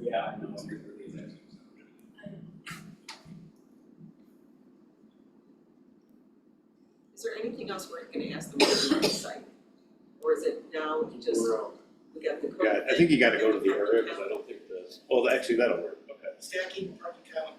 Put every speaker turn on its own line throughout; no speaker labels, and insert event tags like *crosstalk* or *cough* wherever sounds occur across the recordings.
Yeah, I know.
Is there anything else we're gonna ask them to do on site? Or is it now we just, we got the code?
Yeah, I think you gotta go to the area, cause I don't think the, well, actually, that'll work, okay.
Stacking property count.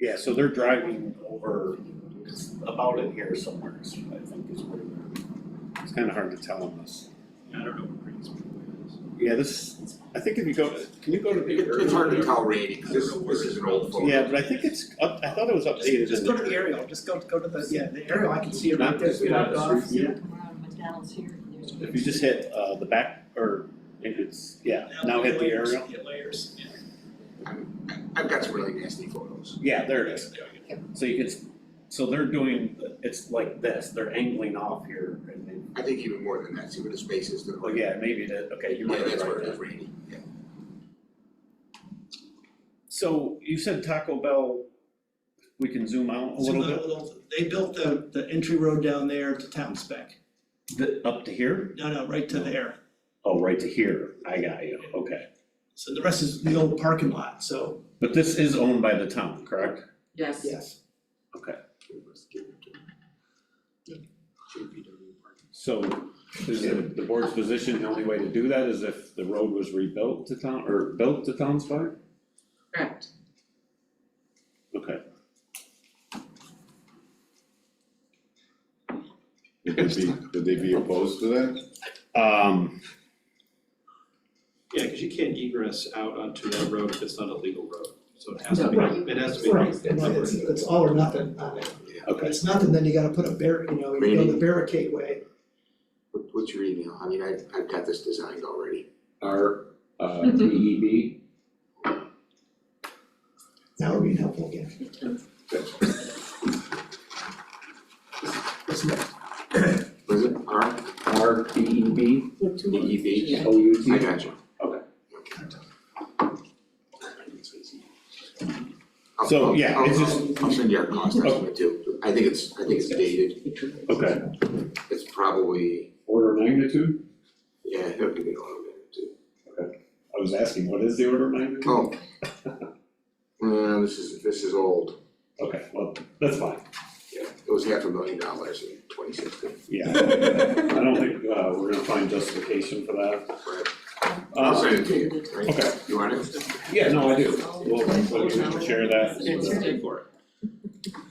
Yeah, so they're driving over, it's about in here somewhere, so I think is where they're, it's kinda hard to tell on this.
I don't know what Green's plan is.
Yeah, this, I think if you go, can you go to the
It-
aerial?
It's hard to tell reading, 'cause this, this is an old photo.
Yeah, but I think it's up, I thought it was updated.
Just
in
go to the aerial, just go, go to the, yeah, the aerial, I can see it right
Not
there.
just, yeah,
blocked
just
off.
review.
McDonald's here and there's.
If you just hit, uh, the back, or, if it's, yeah, now hit the
layers,
aerial.
Hit layers, yeah.
I've got some really nasty photos.
Yeah, there it is. So you can, so they're doing, it's like this, they're angling off here, and then,
I think even more than that, see where the space is.
oh yeah, maybe that, okay, you
Yeah,
might be right
that's where it
there.
is, Randy, yeah.
So you said Taco Bell, we can zoom out a
So
little
the-
bit,
the- They built the, the entry road down there to town spec.
The- up to here?
No, no, right to there.
Oh, right to here, I got you, okay.
So the rest is the old parking lot, so.
But this is owned by the town, correct?
Yes.
Yes.
So is the, the board's position, the only way to do that is if the road was rebuilt to town, or built to town's part?
Correct.
Okay.
Would they be, would they be opposed to that?
Um,
Yeah, cause you can't egress out onto that road if it's not a legal road, so it has to be,
No,
it has to be.
Right, and it's, it's all or nothing on it. If
okay,
it's nothing, then you gotta put a bar, you know, you go the
Randy?
barricade way.
What, what's your email? I mean, I, I've got this designed already.
R, uh, D E B,
That would be helpful again.
Was it R,
R, D E B,
D E B?
O U
I
T.
got you.
Okay.
I'll-
So,
I'll-
yeah, it's
I'll-
just- Oh.
I'll send you our cost estimate too. I think it's, I think it's dated.
okay,
It's probably,
Order of magnitude?
yeah, it'll be a little bit too.
I was asking, what is the order of magnitude?
Oh. *laughs* Uh, this is, this is old.
Okay, well, that's fine,
Yeah, it was half a million dollars in twenty sixteen. *laughs*
yeah, I don't think, uh, we're gonna find justification for that.
I'll
Uh,
send it to you. right?
*laughs*
okay,
You want it?
yeah, no, I do, we'll, we'll share that.
It's good for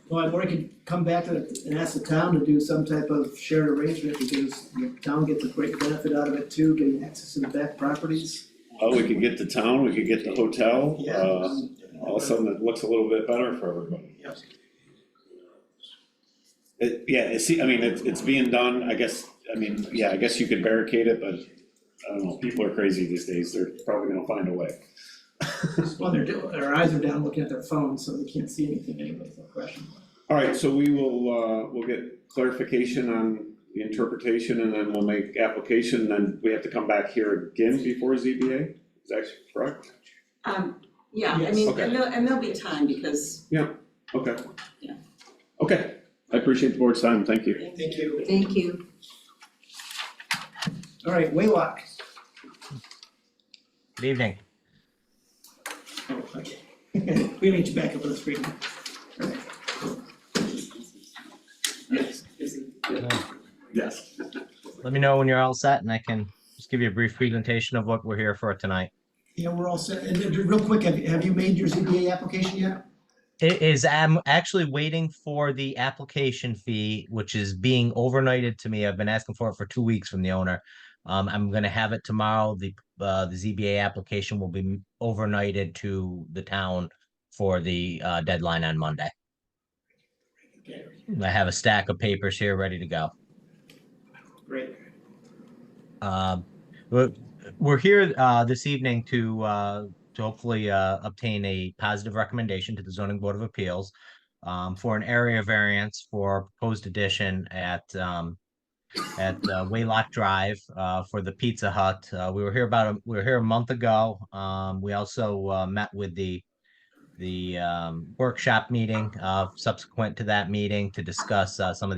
Well, or you could come back to- and ask the town to do some type of shared arrangement because the town gets a great benefit out of it too, getting access to the back properties.
Oh, we could get the town, we could get the hotel, uh,
Yeah.
all of a sudden it looks a little bit better for everybody.
Yep.
It, yeah, it see, I mean, it's, it's being done, I guess, I mean, yeah, I guess you could barricade it, but I don't know, people are crazy these days, they're probably gonna find a way. *laughs*
Well, they're, do- their eyes are down looking at their phones, so they can't see anything anyway, it's no question.
All right, so we will, uh, we'll get clarification on the interpretation and then we'll make application, then we have to come back here again before ZBA, is that correct?
Um, yeah, I
Yes.
mean,
Okay.
and there'll, and there'll be time because,
Okay.
Yeah.
Okay, I appreciate the board's time, thank you.
Thank you.
Thank you.
All right, Waylock.
Good evening.
Oh, okay. *laughs* We need you back up on the screen. All right. Yes, is it-
Yes.
Let me know when you're all set and I can just give you a brief presentation of what we're here for tonight.
Yeah, we're all set. And then, real quick, have, have you made your ZBA application yet?
It is, I'm actually waiting for the application fee, which is being overnighted to me. I've been asking for it for two weeks from the owner. Um, I'm gonna have it tomorrow. The, uh, the ZBA application will be overnighted to the town for the, uh, deadline on Monday. I have a stack of papers here ready to go.
Great.
Um, We're we're here uh, this evening to, uh, to hopefully uh, obtain a positive recommendation to the zoning board of appeals um, for an area variance for a proposed addition at, um, at uh, Waylock Drive uh, for the Pizza Hut. Uh, We were here about, a- we were here a month ago. Um, We also uh, met with the, the um, workshop meeting uh, subsequent to that meeting to discuss uh, some of the